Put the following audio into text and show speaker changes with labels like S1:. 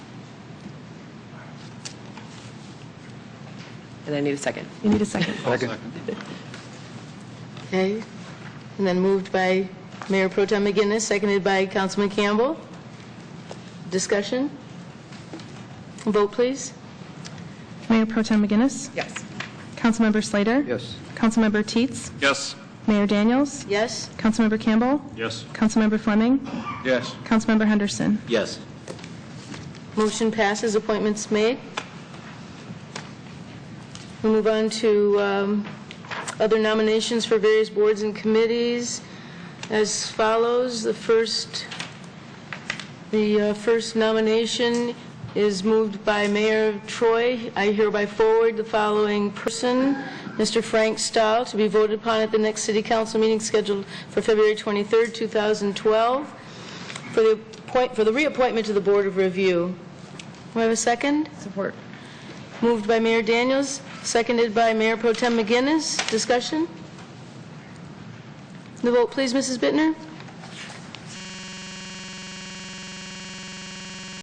S1: And I need a second.
S2: You need a second.
S3: Okay, and then moved by Mayor Pro Tem McGinnis, seconded by Councilman Campbell. Discussion? Vote, please.
S2: Mayor Pro Tem McGinnis?
S1: Yes.
S2: Councilmember Slater?
S4: Yes.
S2: Councilmember Teets?
S5: Yes.
S2: Mayor Daniels?
S3: Yes?
S2: Councilmember Campbell?
S5: Yes.
S2: Councilmember Fleming?
S5: Yes.
S2: Councilmember Henderson?
S4: Yes.
S3: Motion passes, appointments made. We move on to um, other nominations for various boards and committees as follows. The first, the uh, first nomination is moved by Mayor Troy. I hereby forward the following person, Mr. Frank Stahl, to be voted upon at the next city council meeting scheduled for February 23rd, 2012 for the appoint, for the reappointment to the Board of Review. Do I have a second?
S1: Support.
S3: Moved by Mayor Daniels, seconded by Mayor Pro Tem McGinnis. Discussion? The vote, please, Mrs. Bittner.